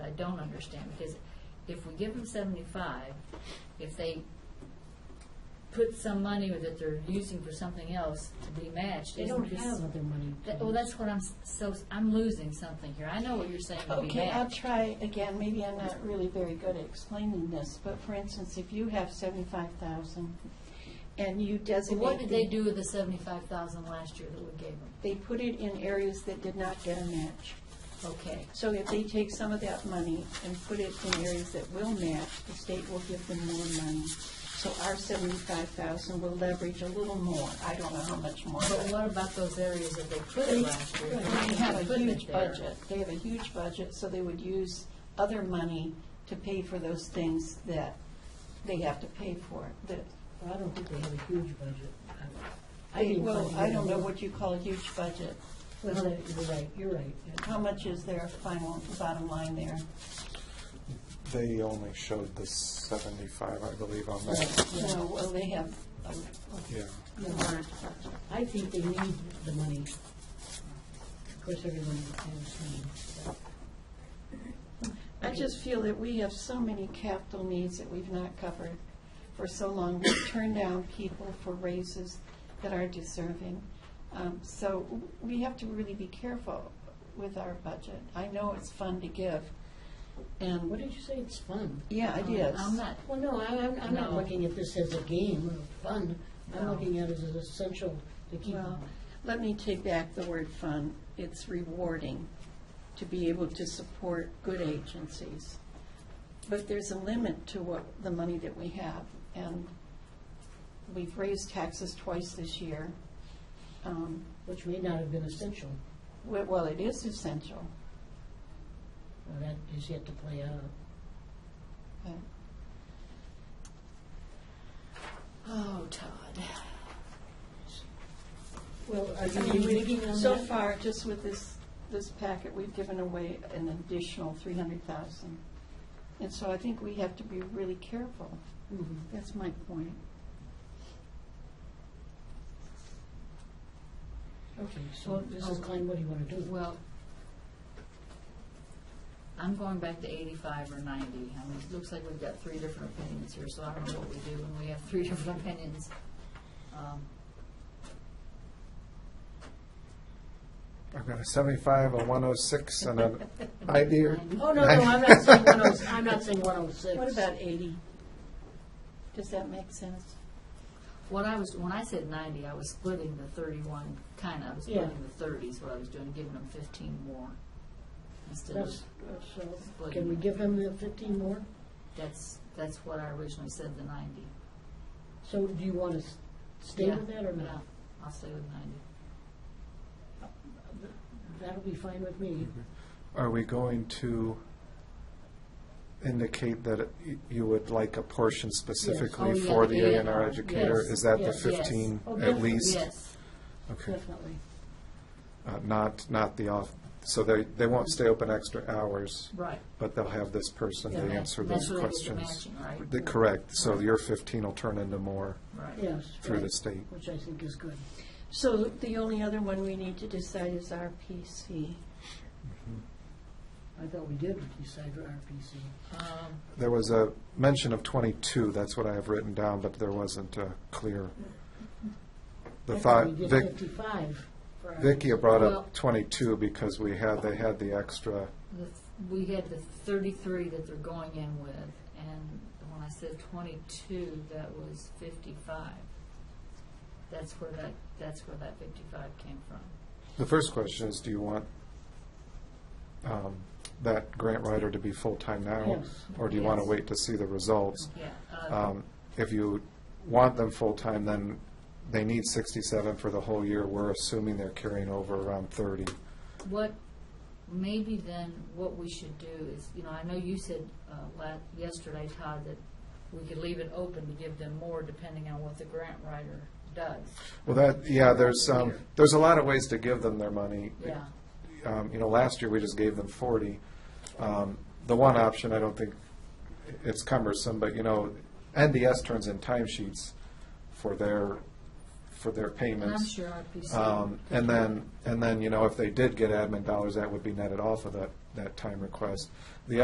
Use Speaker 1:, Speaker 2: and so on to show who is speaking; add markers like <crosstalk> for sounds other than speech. Speaker 1: don't understand, because if we give them seventy-five, if they put some money that they're using for something else to be matched,
Speaker 2: They
Speaker 1: isn't
Speaker 2: don't
Speaker 1: this?
Speaker 2: have other money.
Speaker 1: That- Well, that's what I'm, s- so, s- I'm losing something here. I know what you're saying would be
Speaker 3: Okay, I'll
Speaker 1: matched.
Speaker 3: try again, maybe I'm not really very good at explaining this, but for instance, if you have seventy-five thousand and you
Speaker 1: So
Speaker 3: designate.
Speaker 1: what did they
Speaker 3: the-
Speaker 1: do with the seventy-five thousand last year that we gave them?
Speaker 3: They put it in areas that did not get a match.
Speaker 1: Okay,
Speaker 3: So if they take some of that money and put it in areas that will match, the state will give them more money. So our seventy-five thousand will leverage a little more, I don't know how much more.
Speaker 1: but
Speaker 3: but-
Speaker 1: what about those areas that they put it last year?
Speaker 3: They have a
Speaker 1: Put it
Speaker 3: huge
Speaker 1: there.
Speaker 3: budget, they have a huge budget, so they would use other money to pay for those things that they have to pay for, that,
Speaker 2: I don't think they have a huge budget. I- I
Speaker 3: they-
Speaker 2: didn't
Speaker 3: well,
Speaker 2: find
Speaker 3: I
Speaker 2: it.
Speaker 3: don't know what you call a huge budget.
Speaker 2: Well, no, you're right, you're right.
Speaker 3: How much is their final, bottom line there?
Speaker 4: They only showed the seventy-five, I believe, on that,
Speaker 3: No, well, they have a a
Speaker 4: yeah.
Speaker 3: large budget.
Speaker 2: I think they need the money. Of course, everyone has money.
Speaker 3: I just feel that we have so many capital needs that we've not covered for so long. We turn down people for raises that are deserving. Um, So we have to really be careful with our budget. I know it's fun to give,
Speaker 2: What
Speaker 3: and,
Speaker 2: did you say, it's fun?
Speaker 3: yeah, it is.
Speaker 1: Um, I'm not,
Speaker 2: Well, no, I- I'm, I'm not
Speaker 1: No.
Speaker 2: looking at this as a game or fun. I'm
Speaker 1: No.
Speaker 2: looking at it as essential to keep.
Speaker 3: Well, let me take back the word fun. It's rewarding to be able to support good agencies. But there's a limit to what, the money that we have. And we've raised taxes twice this year. Um,
Speaker 2: which may not have been essential.
Speaker 3: we- Well, it is essential.
Speaker 2: Well, that is yet to play out.
Speaker 3: but-
Speaker 1: oh, Todd.
Speaker 2: Well, are
Speaker 3: I
Speaker 2: you
Speaker 3: mean, we-
Speaker 2: reneging on
Speaker 3: So
Speaker 2: that?
Speaker 3: far, just with this, this packet, we've given away an additional 300,000. And so I think we have to be really careful.
Speaker 2: Mhm.
Speaker 3: That's my point.
Speaker 2: Okay, so
Speaker 1: Well,
Speaker 2: Mrs.
Speaker 1: oh.
Speaker 2: Klein, what do you want to do?
Speaker 1: Well, I'm going back to eighty-five or ninety. I mean, it looks like we've got three different opinions here, so I don't know what we do when we have three <laughs> different opinions. Um,
Speaker 4: I've got a seventy-five, a one oh six,
Speaker 1: <laughs>
Speaker 4: and an idea.
Speaker 2: Oh, no, no, I'm not saying 106, I'm not saying 106.
Speaker 3: What about 80? Does that make sense?
Speaker 1: What I was, when I said ninety, I was splitting the thirty-one, kinda, I was
Speaker 2: Yeah.
Speaker 1: splitting the thirties, what I was doing, giving them fifteen more. Instead of,
Speaker 2: That's- that's, uh, Can we give him the 15 more?
Speaker 1: that's, that's what I originally said, the ninety.
Speaker 2: So do you want to stay
Speaker 1: Yeah.
Speaker 2: with that or
Speaker 1: Yeah,
Speaker 2: not?
Speaker 1: I'll stay with ninety.
Speaker 2: That'll be fine with me.
Speaker 4: Are we going to indicate that y- you would like a portion specifically
Speaker 1: Yes. Oh,
Speaker 4: for
Speaker 1: yeah,
Speaker 4: the A and
Speaker 1: yeah.
Speaker 4: R educator?
Speaker 2: Yes.
Speaker 4: Is that the
Speaker 2: Yes.
Speaker 4: fifteen
Speaker 2: Oh,
Speaker 4: at
Speaker 2: definitely,
Speaker 4: least?
Speaker 1: Yes,
Speaker 4: Okay,
Speaker 2: Definitely.
Speaker 4: Uh, not, not the off, so they, they won't stay open extra hours,
Speaker 1: right.
Speaker 4: but they'll have this person
Speaker 1: Yeah,
Speaker 4: to answer
Speaker 1: that's
Speaker 4: those
Speaker 1: where they get the
Speaker 4: questions.
Speaker 1: matching, right?
Speaker 4: The- Correct, so your fifteen will turn into more
Speaker 1: Right.
Speaker 2: Yes.
Speaker 4: through
Speaker 2: right,
Speaker 4: the state.
Speaker 2: Which I think is good.
Speaker 3: So the only other one we need to decide is RPC.
Speaker 2: I thought we did decide for RPC.
Speaker 1: Um,
Speaker 4: There was a mention of 22, that's what I have written down, but there wasn't a clear. The
Speaker 2: I
Speaker 4: thought,
Speaker 2: We did
Speaker 4: Vic-
Speaker 2: 55 for our-
Speaker 4: Vicky brought
Speaker 1: Well-
Speaker 4: up 22 because we had, they had the extra,
Speaker 1: the th- We had the thirty-three that they're going in with, and when I said twenty-two, that was fifty-five. That's where that, that's where that fifty-five came from.
Speaker 4: the first question is, do you want um, that grant writer to be full-time now?
Speaker 2: Yes.
Speaker 4: Or do you want to
Speaker 1: Yes.
Speaker 4: wait to see the results?
Speaker 1: Yeah, uh,
Speaker 4: Um, If you want them full-time, then they need 67 for the whole year. We're assuming they're carrying over around 30.
Speaker 1: what, maybe then, what we should do is, you know, I know you said, uh, la yesterday, Todd, that we could leave it open to give them more depending on what the grant writer does.
Speaker 4: Well, that, yeah, there's, um,
Speaker 1: Here.
Speaker 4: there's a lot of ways to give them their money.
Speaker 1: Yeah,
Speaker 4: Um, you know, last year, we just gave them forty. Um, the one option, I don't think, it's cumbersome, but you know, NDS turns in timesheets for their, for their
Speaker 1: and I'm
Speaker 4: payments.
Speaker 1: sure RPC.
Speaker 4: Um, and then, and then, you know, if they did get admin dollars, that would be netted off of that, that time request. The